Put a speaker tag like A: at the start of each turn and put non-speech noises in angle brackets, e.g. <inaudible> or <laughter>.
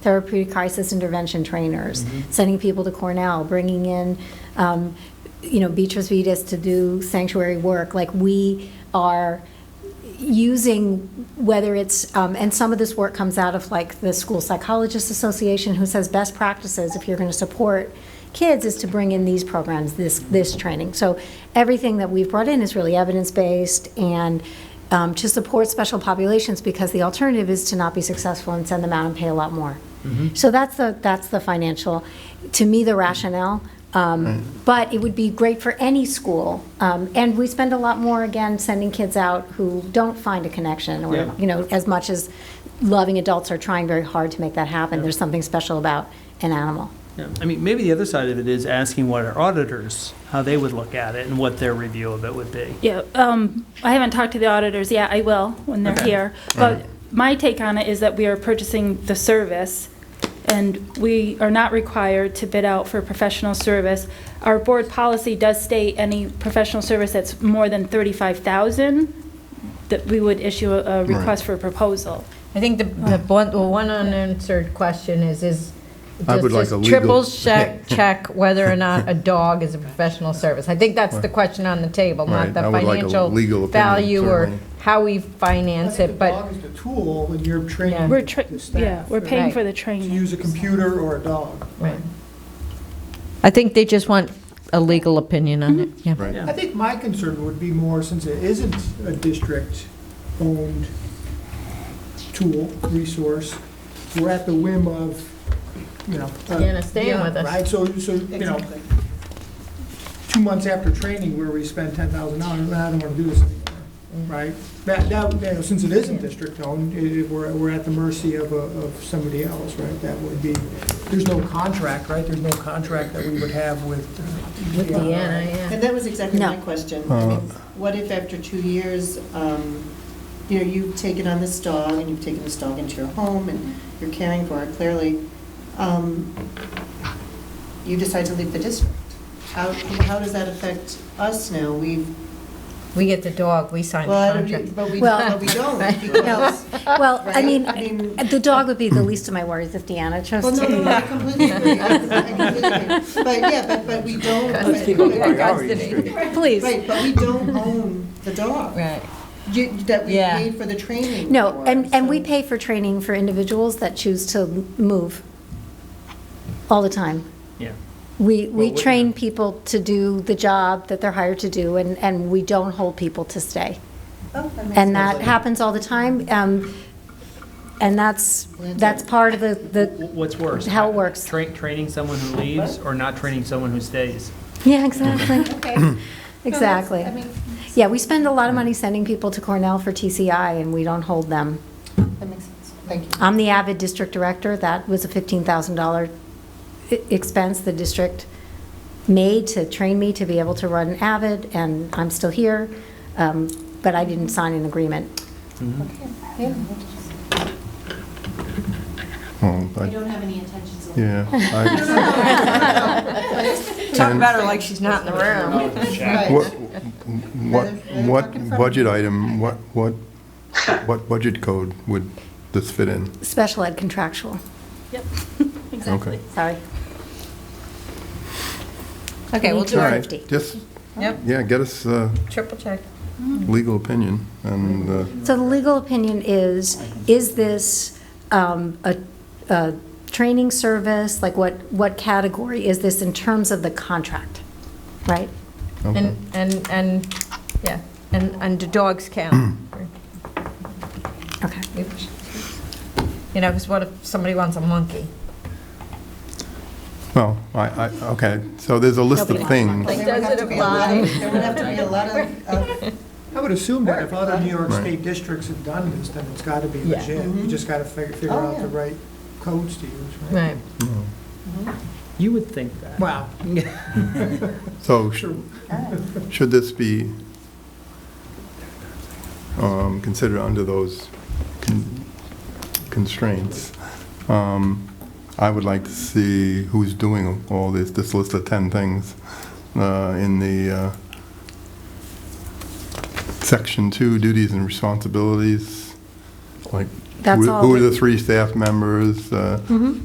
A: therapeutic crisis intervention trainers, sending people to Cornell, bringing in, um, you know, Beatrice Vitas to do sanctuary work. Like, we are using, whether it's, um, and some of this work comes out of like the School Psychologists Association, who says best practices, if you're going to support kids, is to bring in these programs, this, this training. So everything that we've brought in is really evidence-based and um, to support special populations, because the alternative is to not be successful and send them out and pay a lot more. So that's the, that's the financial, to me, the rationale. Um, But it would be great for any school. Um, And we spend a lot more, again, sending kids out who don't find a connection
B: Yeah.
A: or, you know, as much as loving adults are trying very hard to make that happen. There's something special about an animal.
B: Yeah, I mean, maybe the other side of it is asking what our auditors, how they would look at it and what their review of it would be.
C: Yeah, um, I haven't talked to the auditors yet, I will when they're
B: Okay.
C: here. But my take on it is that we are purchasing the service, and we are not required to bid out for professional service. Our board policy does state any professional service that's more than 35,000, that we would issue a- a request for proposal.
D: I think the, the one, the one unanswered question is, is,
E: I would like
D: does
E: a
D: this
E: legal- <laughs>
D: triple check, check whether or not a dog is a professional service? I think that's the question on the table,
E: Right,
D: not the
E: I would like a
D: financial
E: legal opinion,
D: value or
E: certainly.
D: how we finance it,
F: I
D: but,
F: think the dog is the tool, and you're
D: Yeah.
F: training
C: We're, tra-
F: the staff.
C: yeah, we're paying
D: Right.
C: for the
F: To
C: training.
F: use a computer or a dog.
D: right. I think they just want a legal opinion on it, yeah.
E: Right.
F: I think my concern would be more, since it isn't a district-owned tool, resource, we're at the whim of, you know. uh,
D: Deanna, staying with us.
F: Right, so, so, you know, two months after training where we spend ten thousand dollars, I don't wanna do this anymore, right? That, that, you know, since it isn't district-owned, it, we're, we're at the mercy of, a- of somebody else, right? That would be, there's no contract, right? There's no contract that we would have with. uh,
D: With
F: DNR.
D: Deanna, yeah.
G: And that was exactly
A: No.
G: my question. I mean, What if after two years, um, you know, you've taken on this dog, and you've taken this dog into your home, and you're caring for her clearly, um, you decide to leave the district? How, how does that affect us now? We've,
D: We get the dog, we sign
G: well, I
D: the
G: don't,
D: contract.
G: do- but we,
A: Well-
G: but we don't, because,
A: Well, I
G: Uh, Right.
A: mean,
G: I mean-
A: the dog would be the least of my worries if Deanna chose
G: well, no,
A: to.
G: no, no, I completely agree. I completely agree. But, yeah, but, but we don't.
D: <laughs>
G: but-
A: Please.
G: Right, but we don't own the dog.
D: Right.
G: You- That we
D: Yeah.
G: paid for the training.
A: No,
G: for,
A: and, and we
G: so-
A: pay for training for individuals that choose to move all the time.
B: Yeah.
A: We, we
B: Well, we-
A: train people to do the job that they're hired to do, and, and we don't hold people to stay.
G: Oh, makes
A: And
G: sense.
A: that happens all the time, um, and that's, that's part of the, the,
B: W- What's worse?
A: How it works.
B: Tra- Training someone who leaves or not training someone who stays?
A: yeah,
G: <laughs>
A: exactly. Exactly. Yeah, we spend a lot of money sending people to Cornell for TCI, and we don't hold them.
G: That makes sense. Thank you.
A: I'm the avid district director. That was a $15,000 i- e, expense the district made to train me to be able to run avid, and I'm still here, um, but I didn't sign an agreement.
E: Oh, I-
H: I don't have any intentions of
E: Yeah. I-
D: Talk about her like she's not in the room.
E: What, what,
G: Another- another
E: what budget item, what, what, what budget code would this fit in?
A: Special ed contractual,
E: Okay.
A: sorry.
D: Okay, we'll
A: Need to
D: do
E: All
D: it.
E: right,
A: Safety.
E: just,
D: Yep,
E: yeah, get us uh
D: triple check.
E: legal opinion and, uh,
A: So the legal opinion is, is this um, a, a training service? Like what, what category is this in terms of the contract, right?
E: okay.
D: And, and, and, yeah, and, and do dogs count?
A: Okay.
D: You know, because what if somebody wants a monkey?
E: well, I, I, okay, so there's a list of
A: Nobody
E: things.
D: Like,
G: There would
D: does
G: have
D: it
G: to be a lot of-
D: apply?
G: There would have to be a lot of, uh, of-
F: I would assume that if other New York
E: Right.
F: State districts have done this, then it's gotta be
D: Yeah.
F: legit. You just gotta figure, figure
G: Oh,
F: out the
G: yeah.
F: right codes to use, right?
D: Right.
E: Hmm.
B: You would think that.
F: Wow.
E: So sh- should this be um, considered under those con- constraints? Um, I would like to see who's doing all this, this list of 10 things uh, in the uh, Section 2, duties and responsibilities, like
A: That's
E: Who-
A: all.
E: Who
A: that-
E: are the three staff members? uh,